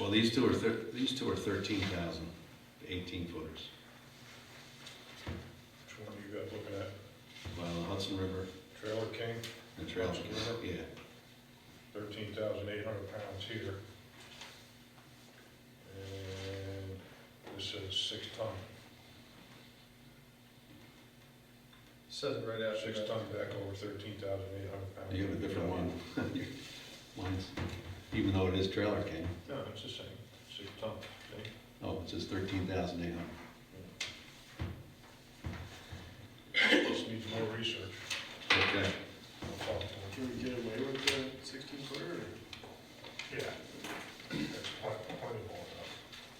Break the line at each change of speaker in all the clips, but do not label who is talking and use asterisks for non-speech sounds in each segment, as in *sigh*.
Well, these two are thir, these two are thirteen thousand, eighteen footers.
Which one you got looking at?
Well, the Hudson River
Trailer King,
and Trail,
Hudson River?
yeah.
thirteen thousand eight hundred pounds here. And this is six ton,
Says it right after
six
that.
ton back over thirteen thousand eight hundred pounds.
You have a different one. *laughs* Mine's, even though it is Trailer King,
No, it's the same, six ton, see?
oh, it says thirteen thousand eight hundred.
This needs more research.
Okay,
I'll talk to him.
Can we get away with the sixteen footer?
Yeah. That's plenty, plenty more enough.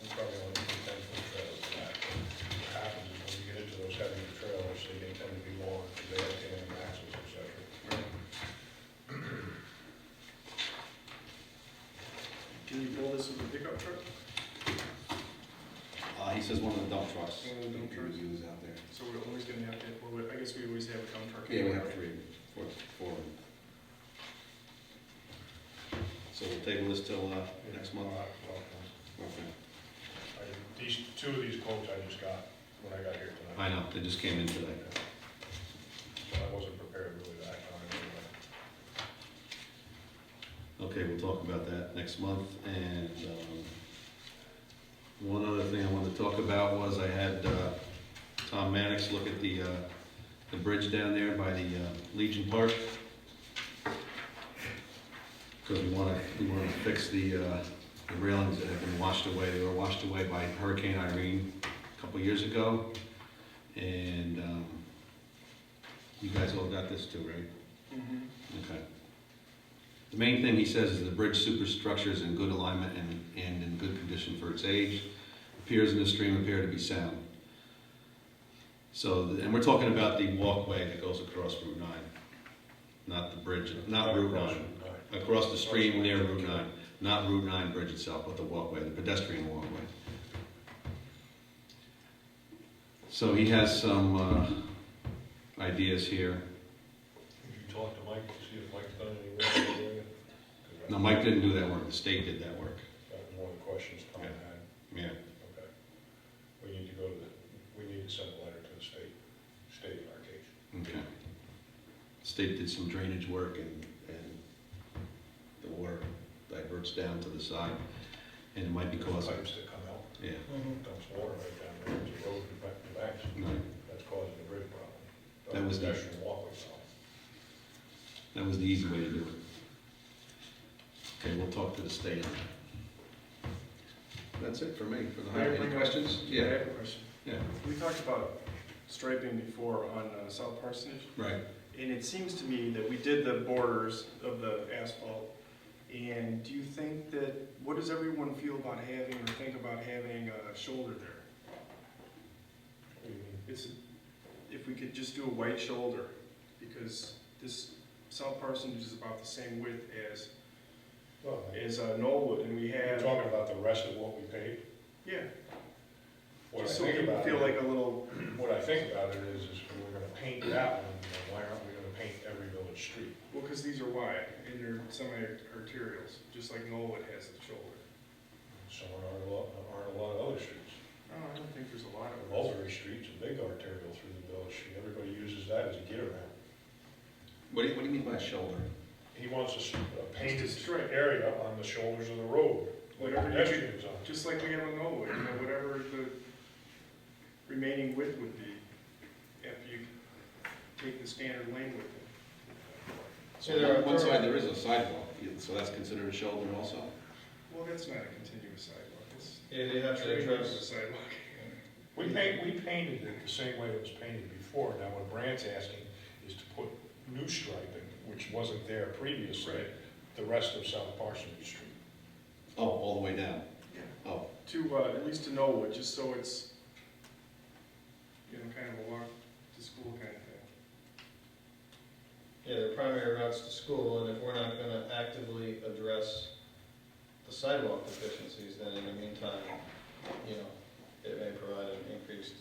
We probably only need ten foot trailers for that. What happens is when you get into those heavier trailers, they get- tend to be long, because they have tandem axles, et cetera.
Can you build this with a pickup truck?
uh, he says one of the dump trucks.
One of the dump trucks.
we Use out there.
So we're always gonna have to, well, we- I guess we always have a dump truck.
Yeah, we have
anyway.
three, four, four. So we'll table this till, uh, next month?
All right, well,
Okay.
I- These, two of these quotes I just got when I got here tonight.
I know, they just came in today.
So I wasn't prepared really to act on it anyway.
Okay, we'll talk about that next month, and, um, one other thing I wanted to talk about was I had, uh, Tom Maddox look at the, uh, the bridge down there by the uh, Legion Park. Cause we wanna, we wanna fix the, uh, the railings that have been washed away, they were washed away by Hurricane Irene a couple years ago. And, um, you guys all got this too, right?
Mhm.
Okay. The main thing he says is the bridge superstructure is in good alignment and, and in good condition for its age. Piers in the stream appear to be sound. So, th- and we're talking about the walkway that goes across Route nine, not the bridge, not Route
uh,
nine. Across the stream near Route nine, not Route nine bridge itself, but the walkway, the pedestrian walkway. So he has some, uh, ideas here.
Did you talk to Mike, see if Mike's done any work in the area? 'Cause I-
No, Mike didn't do that work, the state did that work.
That was one of the questions Tom
Yeah.
had.
Yeah,
Okay. We need to go to the, we need to send a letter to the state, state in our case.
okay. State did some drainage work and, and the water diverts down to the side and it might be causing,
Pipes that come out,
yeah.
dumps water right down there, it's a road in back to back,
no,
that's causing a bridge problem.
That was the-
Pedestrian walkway problem.
That was the easy way to do it. Okay, we'll talk to the state on that. That's it for me, for the
I have
highway. Any
one more-
questions?
I have a question.
Yeah.
We talked about striping before on uh, South Parsonage,
Right,
and it seems to me that we did the borders of the asphalt. And do you think that, what does everyone feel about having or think about having a shoulder there?
What do you mean?
It's, if we could just do a white shoulder, because this South Parsonage is about the same width as,
Well,
as uh, Knollwood, and we
You're
have,
talking about the rest of what we paid?
yeah,
What I
so
think
we
about
feel
it-
like a little,
What I think about it is, is we we're gonna paint that one, then why aren't we gonna paint every village street?
well, because these are wide, and they're semi-arterials, just like Knollwood has the shoulder.
So aren't a lot, aren't a lot of other streets.
Oh, I don't think there's a lot of those.
Mulberry Street's a big arterial through the village, street. everybody uses that as a get around.
what do you, what do you mean by shoulder?
He wants a s- a painted
Just a stripe.
area on the shoulders of the road, like
Whatever you do,
pedestrians on.
just like we have on Knollwood, you know, whatever the remaining width would be, after you take the standard lane width.
So on one side, there is a sidewalk, so that's considered a shoulder also?
Well, that's not a continuous sidewalk, it's.
Yeah, they have to
Trade
address
is a sidewalk.
We paint, we painted it the same way it was painted before, now what Brandt's asking is to put new striping, which wasn't there previously, the rest of South Parsonage Street.
Oh, all the way down,
Yeah.
oh.
To, uh, at least to Knollwood, just so it's, you know, kind of a walk to school kind of thing.
Yeah, their primary routes to school, and if we're not gonna actively address the sidewalk deficiencies, then in the meantime, you know, it may provide an increased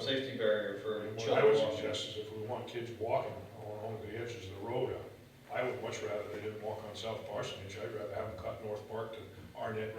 safety barrier for
And What I
children
would
walking.
suggest is if we want kids walking along the edges of the road, I would much rather they didn't walk on South Parsonage, I'd rather have them cut North Park to Arnett